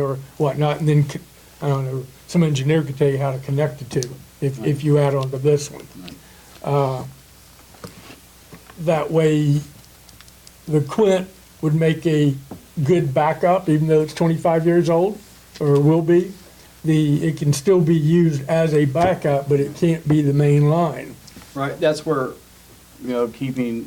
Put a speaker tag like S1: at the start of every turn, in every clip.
S1: or whatnot, and then, c- I don't know, some engineer could tell you how to connect the two, if, if you add on to this one. Uh, That way, the Quint would make a good backup, even though it's twenty-five years old, or will be. The, it can still be used as a backup, but it can't be the main line.
S2: Right, that's where, you know, keeping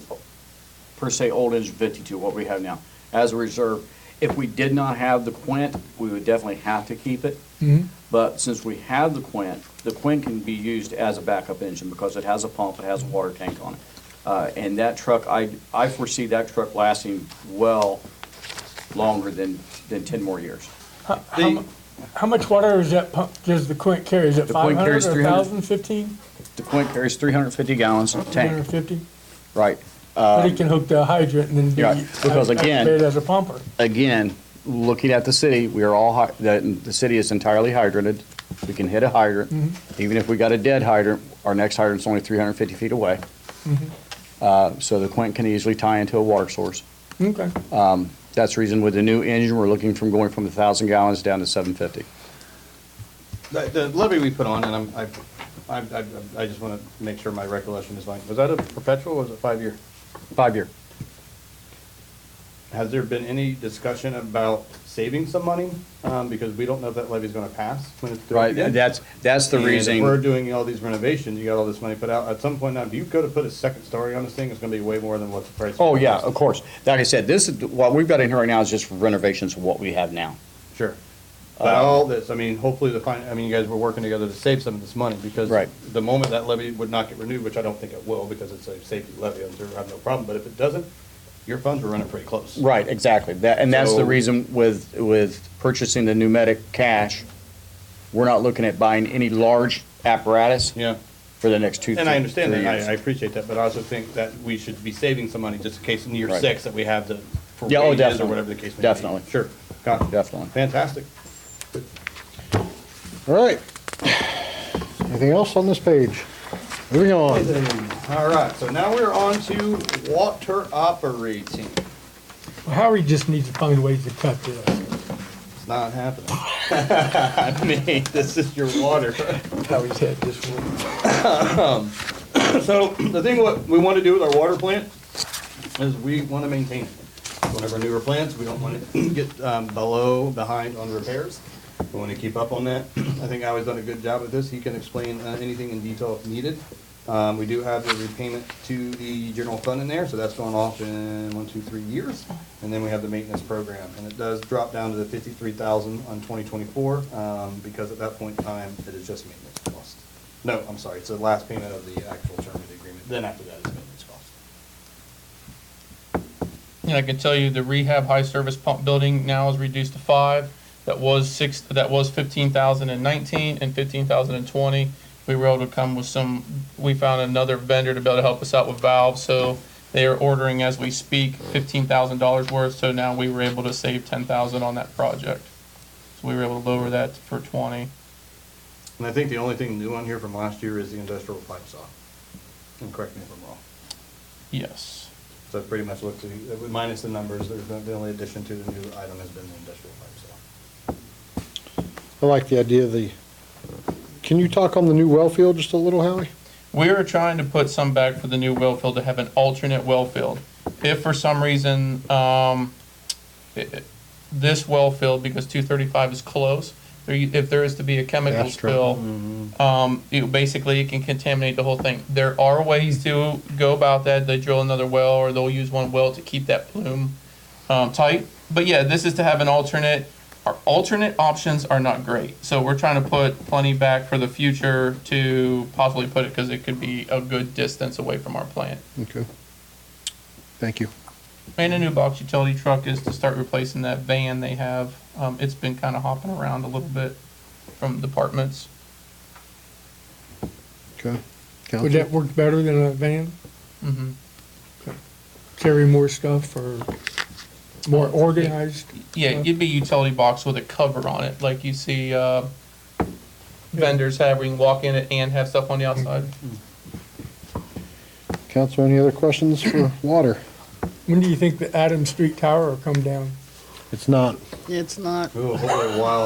S2: per se old engine fifty-two, what we have now, as a reserve. If we did not have the Quint, we would definitely have to keep it.
S1: Mm-hmm.
S2: But since we have the Quint, the Quint can be used as a backup engine because it has a pump, it has a water tank on it. Uh, and that truck, I, I foresee that truck lasting well longer than, than ten more years.
S1: How mu- how much water is that pump, does the Quint carry? Is it
S2: The
S1: five
S2: Quint
S1: hundred
S2: carries
S1: or
S2: 300.
S1: 1,000, 15,
S2: The Quint carries three hundred and fifty gallons of tank,
S1: 350?
S2: right?
S1: But he can hook the hydrant and then do.
S2: Um, Yeah, because again-
S1: activate it As a pumper.
S2: again, looking at the city, we are all, hy- the, the city is entirely hydranted. We can hit a hydrant. Even if we got a dead hydrant, our next hydrant's only 350 feet away. Uh, So the Quint can easily tie into a water source.
S1: Okay.
S2: uh, That's the reason with the new engine, we're looking from going from 1,000 gallons down to 750.
S3: The, the levy we put on, and I'm, I, I, I- I just want to make sure my recollection is like, was that a perpetual or was it five-year?
S2: Five-year.
S3: Has there been any discussion about saving some money? Um, because we don't know if that levy's going to pass when it's through.
S2: Right,
S3: again.
S2: that's, that's the
S3: And if We're
S2: reason.
S3: doing all these renovations, you got all this money put out. At some point now, if you go to put a second story on this thing, it's going to be way more than what the price.
S2: Oh, yeah, of course. Like I said, this, is what we've got in here right now is just renovations of what we have now.
S3: Sure. But
S2: Um,
S3: all this, I mean, hopefully the fin, I mean, you guys were working together to save some of this money because
S2: Right.
S3: the moment that levy would not get renewed, which I don't think it will because it's a safety levy, I'm sure I have no problem, but if it doesn't, your funds were running pretty close.
S2: Right, exactly. That, and that's the
S3: So-
S2: reason with, with purchasing the pneumatic cash, we're not looking at buying any large apparatus
S3: Yeah.
S2: for the next two, three
S3: And I understand
S2: three
S3: that. I, I
S2: years.
S3: appreciate that, but I also think that we should be saving some money just in case in year
S2: Right.
S3: six that we have the, for
S2: Yeah, oh,
S3: wages or
S2: definitely.
S3: whatever the case may be.
S2: Definitely.
S3: Sure. Got it.
S2: Definitely.
S3: Fantastic.
S4: All right. Anything else on this page? Moving on.
S3: All right, so now we're on to water operating.
S1: Well, Howie just needs to find ways to cut this.
S3: It's not happening. I mean, this is your water.
S1: Howie's had this one.
S3: So the thing what we want to do with our water plant is we want to maintain it. One of our newer plants, we don't want to get um, below, behind on repairs. We want to keep up on that. I think Howie's done a good job with this. He can explain uh, anything in detail if needed. Um, We do have the repayment to the general fund in there, so that's going off in one, two, three years. And then we have the maintenance program, and it does drop down to the fifty-three thousand on twenty twenty-four, um, because at that point in time, it is just maintenance cost. No, I'm sorry, it's the last payment of the actual term of the agreement, then after that is maintenance cost.
S5: And I can tell you the rehab high service pump building now is reduced to five. That was six, that was fifteen thousand and nineteen and fifteen thousand and twenty. We were able to come with some, we found another vendor to be able to help us out with valves, so they are ordering as we speak fifteen thousand dollars worth, so now we were able to save ten thousand on that project. So we were able to lower that for twenty.
S3: And I think the only thing new on here from last year is the industrial pipe saw. And correct me if I'm wrong.
S5: Yes.
S3: So it pretty much looked to, uh, minus the numbers, there's been, the only addition to the new item has been the industrial pipe saw.
S4: I like the idea of the, can you talk on the new well field just a little, Howie?
S5: We are trying to put some back for the new well field to have an alternate well field. If for some reason, um, i- i- this well field, because two thirty-five is close, there, you- if there is to be a chemical
S4: That's true. Mm-hmm.
S5: spill, um, you, basically it can contaminate the whole thing. There are ways to go about that. They drill another well or they'll use one well to keep that plume, um, tight. But yeah, this is to have an alternate. Our alternate options are not great, so we're trying to put plenty back for the future to possibly put it because it could be a good distance away from our plant.
S4: Okay. Thank you.
S5: And a new box utility truck is to start replacing that van they have. Um, it's been kind of hopping around a little bit from departments.
S4: Okay.
S1: Would
S4: Counsel?
S1: that work better than a van?
S5: hmm
S1: Carry more stuff or more
S2: Uh,
S1: organized?
S5: Yeah, it'd be a utility box with a cover on it, like you see uh, vendors have where you can walk in it and have stuff on the outside.
S4: Counsel, any other questions for water?
S1: When do you think the Adams Street Tower will come down?
S4: It's not
S6: It's not
S3: Ooh, holy wow.